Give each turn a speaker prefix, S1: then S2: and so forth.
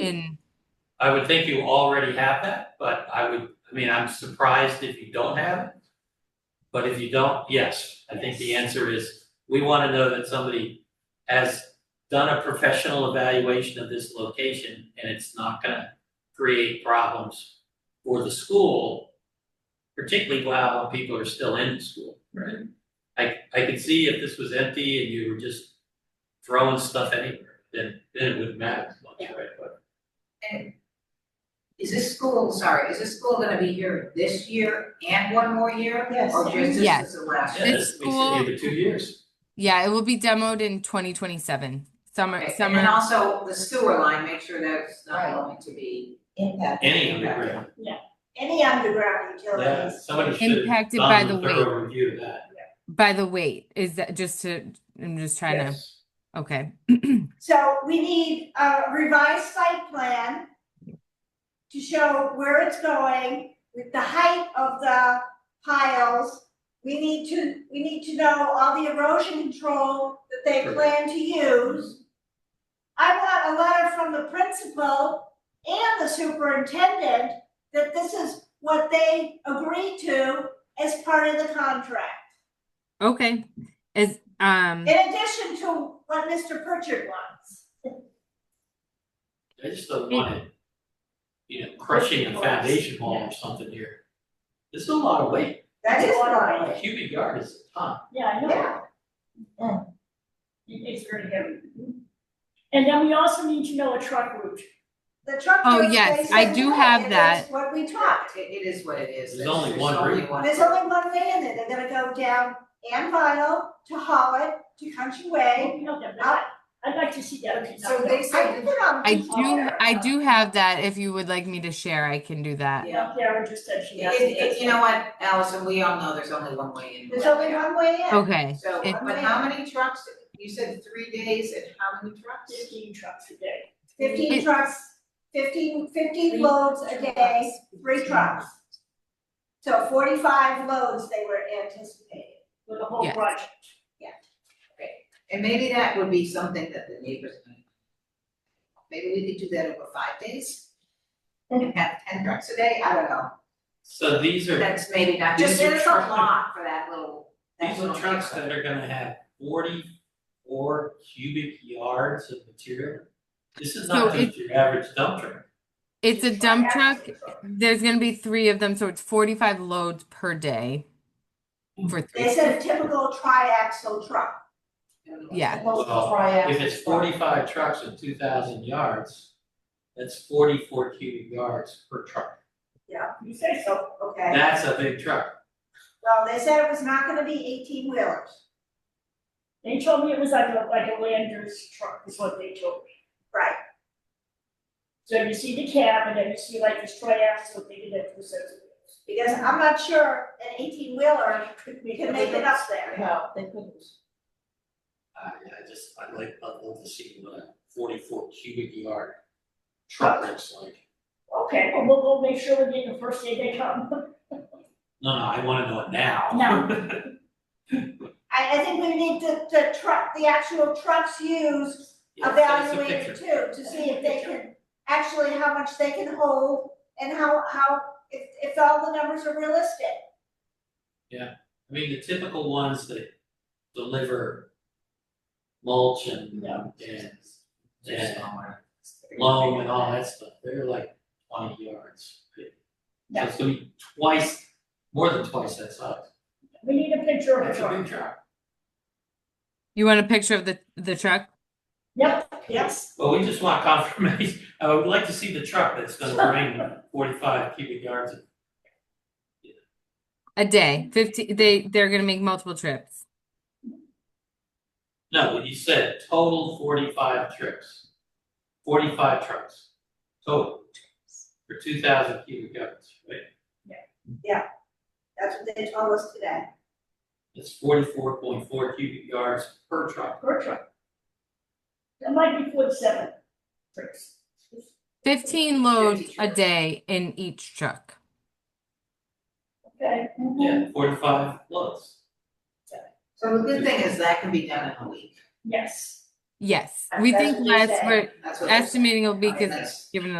S1: in,
S2: I would think you already have that, but I would, I mean, I'm surprised if you don't have it. But if you don't, yes, I think the answer is, we wanna know that somebody has done a professional evaluation of this location and it's not gonna create problems for the school, particularly while people are still in school.
S3: Right.
S2: I, I could see if this was empty and you were just throwing stuff anywhere, then, then it wouldn't matter as much, right? But
S4: Is this school, sorry, is this school gonna be here this year and one more year?
S3: Yes.
S4: Or just this
S1: Yes.
S4: is the last
S2: Yeah,
S4: year?
S2: this
S1: This
S2: makes
S1: school-
S2: it maybe two years.
S1: yeah, it will be demoed in twenty twenty-seven, summer,
S4: Okay, And then
S1: summer,
S4: also the sewer line, make sure that's not
S3: Right.
S4: going to be,
S3: impact,
S2: Any underground,
S3: any underground
S2: yeah,
S3: utilities.
S2: somebody should have
S1: impacted by
S2: done
S1: the
S2: a
S1: weight,
S2: thorough review of that.
S1: by the weight, is that just to, I'm just trying to, okay.
S3: So we need a revised site plan to show where it's going with the height of the piles. We need to, we need to know all the erosion control that they plan to use. I want a letter from the principal and the superintendent that this is what they agreed to as part of the contract.
S1: Okay, is, um,
S3: In addition to what Mr. Pritchard wants.
S2: I just don't want it, you know, crushing a foundation wall or something here. There's a lot of weight,
S3: That is
S2: a
S3: why.
S2: cubic yard is a ton.
S5: Yeah, I know,
S3: Yeah,
S5: it's very heavy. And then we also need to know a truck route.
S3: the truck.
S1: Oh,
S3: route,
S1: yes,
S3: they
S1: I
S3: said
S1: do
S3: no,
S1: have
S3: and that's
S1: that.
S3: What we
S4: Fuck,
S3: talked,
S4: it, it is what it is.
S2: There's only one
S4: There's only
S2: route.
S4: one.
S3: there's only one way in there, they're gonna go down Ann Vinyl to Hollitt to Country Way.
S5: We know that, but I- I'd like to see that.
S4: So they
S3: I put
S4: said,
S3: it on.
S1: I do,
S3: Twitter.
S1: I do have that, if you would like me to share, I can do that.
S4: yeah,
S5: Karen just said she has.
S4: It- it- you know what, Allison, we all know there's only one way in.
S3: There's only one way in.
S1: Okay,
S4: So,
S1: It-
S4: but how many trucks, you said three days and how many trucks?
S5: Fifteen trucks a day.
S3: Fifteen
S1: It-
S3: trucks, fifteen, fifteen loads a day, three trucks. So forty-five loads they were anticipating.
S5: For the whole
S1: Yes.
S5: project.
S4: And maybe that would be something that the neighbors. might- Maybe we could do that over five days. And have ten trucks a day, I don't know,
S2: So these are,
S4: that's maybe not,
S2: These
S4: just
S2: are
S4: there's a
S2: trucks that-
S4: lot for that little, that
S2: these
S4: little.
S2: are trucks that are gonna have forty-four cubic yards of material. This is not
S1: So
S2: just your average dump truck.
S1: it's a dump truck, there's gonna be three of them, so it's forty-five loads per day. For
S3: They
S1: three,
S3: said a typical triaxle truck.
S1: yeah,
S2: Well, If it's forty-five trucks and two thousand yards, that's forty-four cubic yards per truck.
S5: You say so.
S3: Okay.
S2: That's a big truck.
S3: Well, they said it was not gonna be eighteen wheelers,
S5: They told me it was like a, like a Landers truck is what they told me.
S3: right?
S5: So you see the cab and then you see like this triaxle, they did that two sets of wheels.
S3: Because I'm not sure an eighteen wheeler
S5: Could be-
S3: can make it up there.
S4: No, they couldn't.
S2: I, I just, I like, I love to see what a forty-four cubic yard
S3: Oh.
S2: truck looks like.
S5: Okay, well, we'll, we'll make sure we're getting the first day they come.
S2: No, no, I wanna know it now.
S5: Now.
S3: I, I think we need the, the truck, the actual trucks used
S2: Yeah, send us a
S3: evaluated
S2: picture.
S3: too, to see if they can, actually how much they can hold and how, how, if, if all the numbers are realistic.
S2: I mean, the typical ones that deliver mulch and,
S5: No.
S2: and, and loam and all that stuff, they're like twenty yards. So it's gonna be twice, more than twice that size.
S5: We need a picture of the
S2: That's a
S5: truck.
S2: big truck.
S1: you want a picture of the, the truck?
S5: Yep, yes.
S2: Well, we just want confirmation, I would like to see the truck that's gonna bring forty-five cubic yards of
S1: A day, fifty, they, they're gonna make multiple trips.
S2: No, but you said total forty-five trips. Forty-five trucks, total. For two thousand cubic yards, right?
S3: That's what they told us today.
S2: That's forty-four point four cubic yards per truck.
S5: Per truck. That might be forty-seven trips.
S1: Fifteen loads a
S4: trucks.
S1: day in each truck.
S5: Okay.
S2: Yeah, forty-five loads.
S4: So the good thing is that can be done in a week.
S5: Yes.
S1: Yes,
S5: That's-
S1: we
S5: that's
S1: think
S5: what they
S1: less,
S5: say.
S1: we're
S4: That's what. they're saying.
S1: estimating it'll be because
S4: That's-
S1: given